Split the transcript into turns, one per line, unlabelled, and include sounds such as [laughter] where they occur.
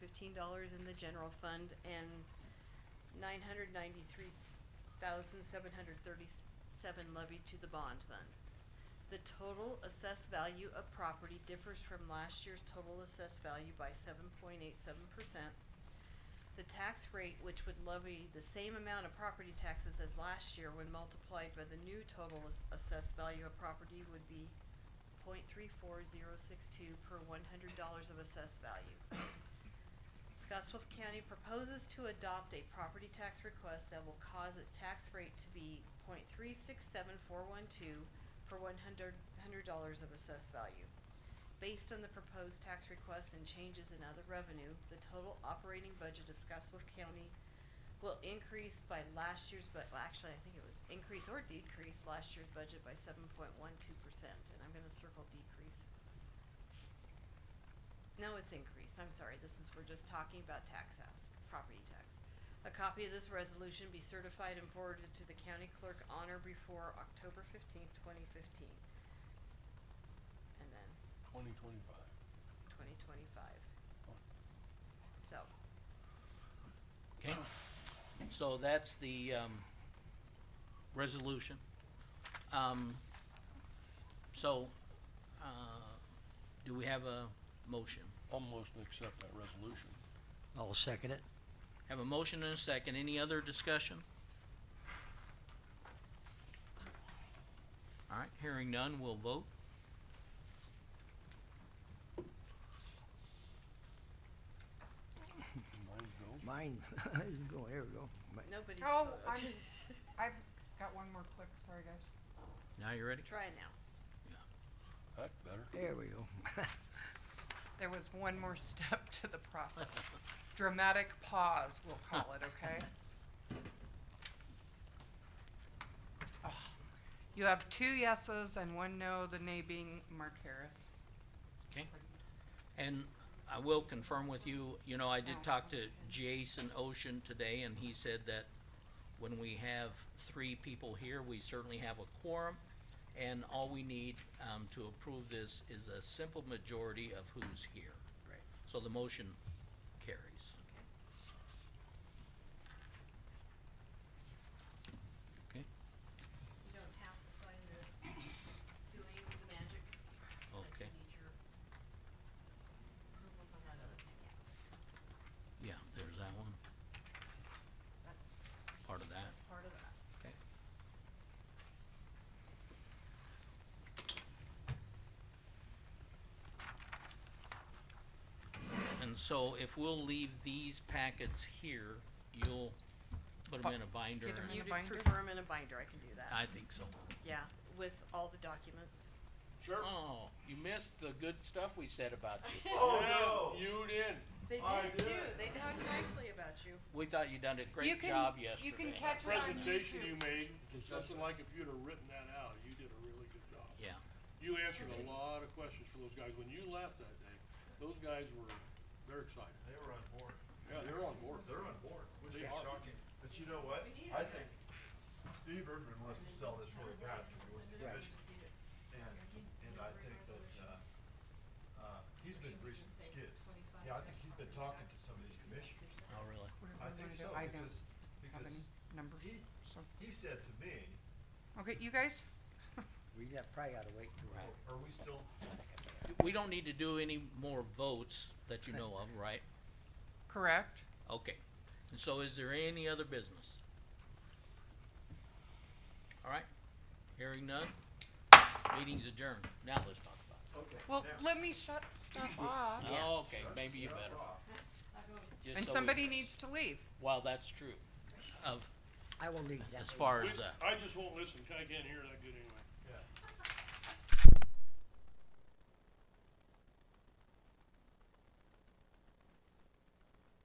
fifteen dollars in the general fund and nine hundred ninety-three thousand seven hundred thirty-seven levied to the bond fund. The total assessed value of property differs from last year's total assessed value by seven point eight seven percent. The tax rate, which would levy the same amount of property taxes as last year when multiplied by the new total assessed value of property would be point three four zero six two per one hundred dollars of assessed value. Scottsbluff County proposes to adopt a property tax request that will cause its tax rate to be point three six seven four one two per one hundred, hundred dollars of assessed value. Based on the proposed tax request and changes in other revenue, the total operating budget of Scottsbluff County will increase by last year's, but, well, actually, I think it was increase or decrease last year's budget by seven point one two percent, and I'm gonna circle decrease. No, it's increased, I'm sorry, this is, we're just talking about tax house, property tax. A copy of this resolution be certified and forwarded to the county clerk on or before October fifteenth, twenty fifteen. And then
Twenty twenty-five.
twenty twenty-five. So,
Okay, so that's the, um, resolution. Um, so, uh, do we have a motion?
Almost accept that resolution.
I'll second it.
Have a motion and a second, any other discussion? Alright, hearing none, we'll vote.
Mine goes.
Mine [laughs] isn't going, there we go. My-
nobody's.
Oh,
voted.
[laughs] I'm, I've got one more click, sorry guys.
Now you ready?
Try now.
That's better.
There we go.
There was one more [laughs] step to the process. Dramatic pause, we'll call it,
[laughs]
okay? Ah, You have two yeses and one no, the nay being Mark Harris.
Okay. And I will confirm with you, you know, I did talk to Jason Ocean today and he said that when we have three people here, we certainly have a quorum. And all we need, um, to approve this is a simple majority of who's here. Right. So the motion carries. Okay.
You don't have to sign this, it's doing the magic. I
Okay.
need your approvals on that other thing, yeah,
Yeah, there's that one,
that's,
part of that.
that's part of that.
Okay. And so if we'll leave these packets here, you'll put them in a binder.
Get 'em
and-
in
You
a binder?
prefer them in a binder, I can do that,
I think so.
yeah, with all the documents.
Sure.
Oh, you missed the good stuff we said about you.
Oh no.
You did.
They
I
did too,
did.
they talked nicely about you.
We thought you done a
You
great
can-
job
You
yesterday.
can catch it on
Presentation you
YouTube.
made, something like if you'd have written that out, you did a really good job.
Yeah,
You answered a lot of questions for those guys. When you left that day, those guys were, they're excited.
They were on board.
Yeah, they're on board.
They're on board, which
They
is
are.
shocking. But you know what? I think Steve Irvin wants to sell this really bad because he was the division. And, and I think that, uh, uh, he's been reaching skids. Yeah, I think he's been talking to some of these commissioners.
oh, really?
What do
I
wanna
think
do?
so,
I don't
because,
have any
because
numbers,
he,
so,
he said to me,
okay, you guys?
We got, probably gotta wait till.
Right.
are we still,
We don't need to do any more votes that you know of, right?
Correct?
Okay, and so is there any other business? All right, hearing none, meeting's adjourned, now let's talk about
okay,
Well,
now,
let me shut
[laughs]
stuff off,
it. it. Oh, okay,
shut
maybe you
stuff
better,
off.
just
and
so we-
somebody needs to leave.
Well, that's true, of,
I will leave that.
as far as,
We-
uh,
I just won't listen. I can't hear that good anyway.